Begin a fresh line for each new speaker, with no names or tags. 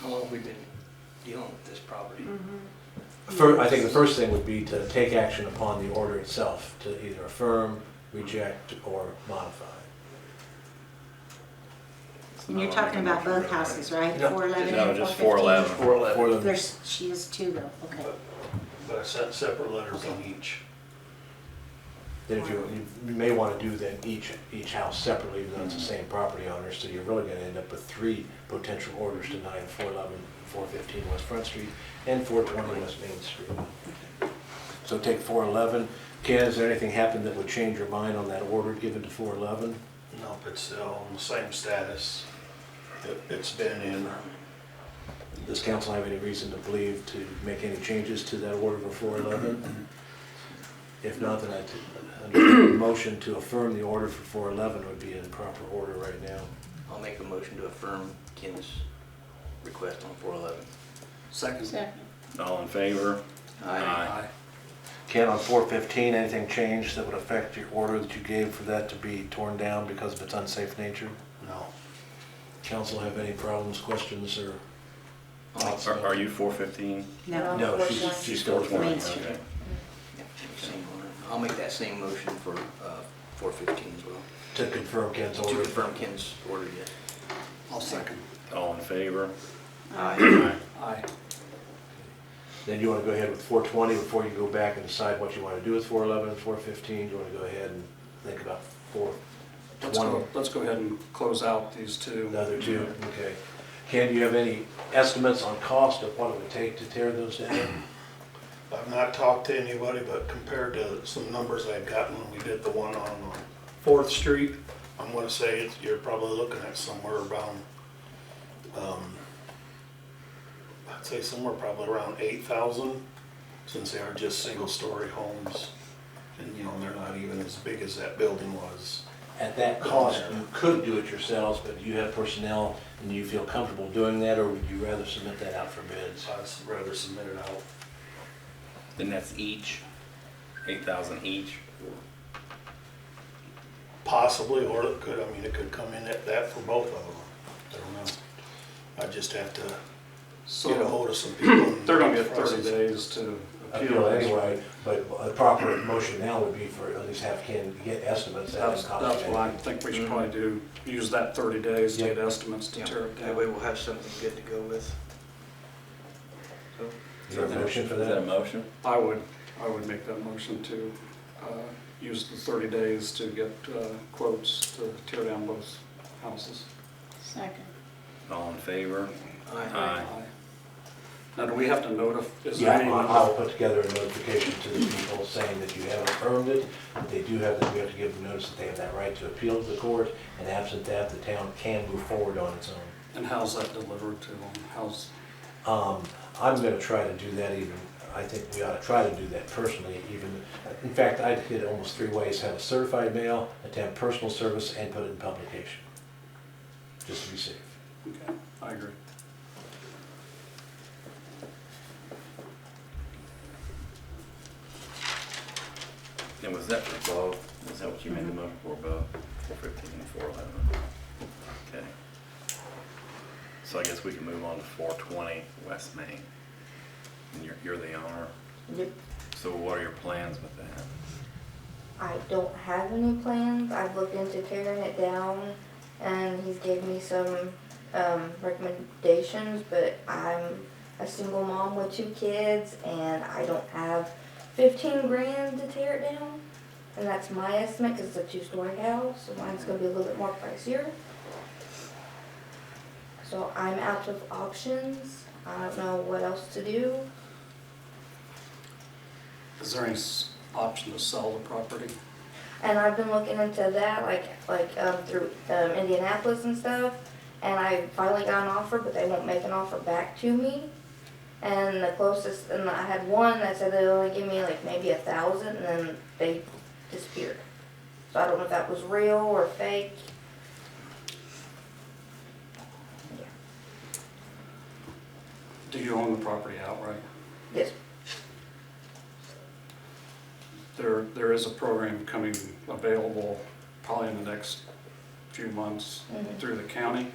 how long we've been dealing with this property.
Fir I think the first thing would be to take action upon the order itself, to either affirm, reject, or modify.
And you're talking about both houses, right?
No,
Four eleven
no,
and four
just
fifteen?
411.
Four eleven,
For the-
There's, she is two though, okay.
but I sent separate letters on each.
Then if you, you may want to do then each, each house separately, even though it's the same property owner, so you're really going to end up with three potential orders denying 411, 415 West Front Street, and 420 West Main Street. So take 411. Ken, has there anything happened that would change your mind on that order given to 411?
Nope, it's still on the same status that it's been in.
Does council have any reason to believe to make any changes to that order for 411? If not, then I, a motion to affirm the order for 411 would be in proper order right now.
I'll make a motion to affirm Ken's request on four eleven.
Second.
All in favor? Aye.
Ken, on 415, anything changed that would affect your order that you gave for that to be torn down because of its unsafe nature?
No.
Council have any problems, questions, or? thoughts?
Are, are you four fifteen?
No,
No, she's, she's still
Main
420.
Street.
Okay.
Yeah, same order. I'll make that same motion for uh, four fifteen as well.
To confirm Ken's
To
order.
confirm Ken's order, yes.
I'll second.
All in favor?
Aye.
Aye.
Then you want to go ahead with 420 before you go back and decide what you want to do with 411 and 415? You want to go ahead and think about
Let's go,
420,
let's go ahead and close out these two.
another two? Okay. Ken, do you have any estimates on cost of what it would take to tear those down?
I've not talked to anybody, but compared to some numbers I've gotten when we did the one on uh, Fourth Street, I'm gonna say it's, you're probably looking at somewhere around, um, I'd say somewhere probably around eight thousand, since they are just single-story homes. And, you know, they're not even as big as that building was.
At that cost, you could do it yourselves, but you have personnel and you feel comfortable doing that, or would you rather submit that out for bids?
So I'd rather submit it out.
Then that's each, eight thousand each?
Possibly, or it could, I mean, it could come in at that for both of them. I don't know. I just have to get a
So
hold of some people. and-
thirty to thirty days to appeal.
Appeal anyway, but a proper motion now would be for at least have Ken get estimates. at
That's,
the cost.
that's what I think we should
Mm-hmm.
probably do, use that thirty days to get estimates to
Yeah,
tear it
That
down.
way we'll have something good to go with. So,
Is there a motion for
Is that a
that?
motion?
I would, I would make that motion to, uh, use the thirty days to get, uh, quotes to tear down both houses.
Second.
All in favor?
Uh-huh.
Aye.
Aye.
Now, do we have to notify, is there
Yeah,
any?
I'll- I'll put together a notification to the people saying that you have affirmed it, that they do have, that we have to give them notice that they have that right to appeal to the court, and absent that, the town can move forward on its own.
And how's that delivered to them? How's,
Um, I'm gonna try to do that even, I think we ought to try to do that personally even. In fact, I did it almost three ways, have a certified mail, attempt personal service, and put it in publication. Just to be safe.
okay, I agree.
And was that for both? Was that what you made
Uh-huh.
the motion for, both? Four fifteen and four eleven? Okay. So I guess we can move on to four twenty West Main. And you're, you're the owner,
Yep.
so what are your plans with that?
I don't have any plans. I've looked into tearing it down, and he's gave me some um, recommendations. But I'm a single mom with two kids, and I don't have 15 grand to tear it down. And that's my estimate because it's a two-story house, so mine's gonna be a little bit more pricier. So I'm out of options. I don't know what else to do.
Is there any s- option to sell the property?
And I've been looking into that, like, like, um, through, um, Indianapolis and stuff. And I finally got an offer, but they won't make an offer back to me. And the closest, and I had one that said they'd only give me like maybe a thousand, and then they disappeared. So I don't know if that was real or fake. Yeah.
Do you own the property outright?
Yes,
There, there is a program coming available probably in the next few months
Mhm.
through the county.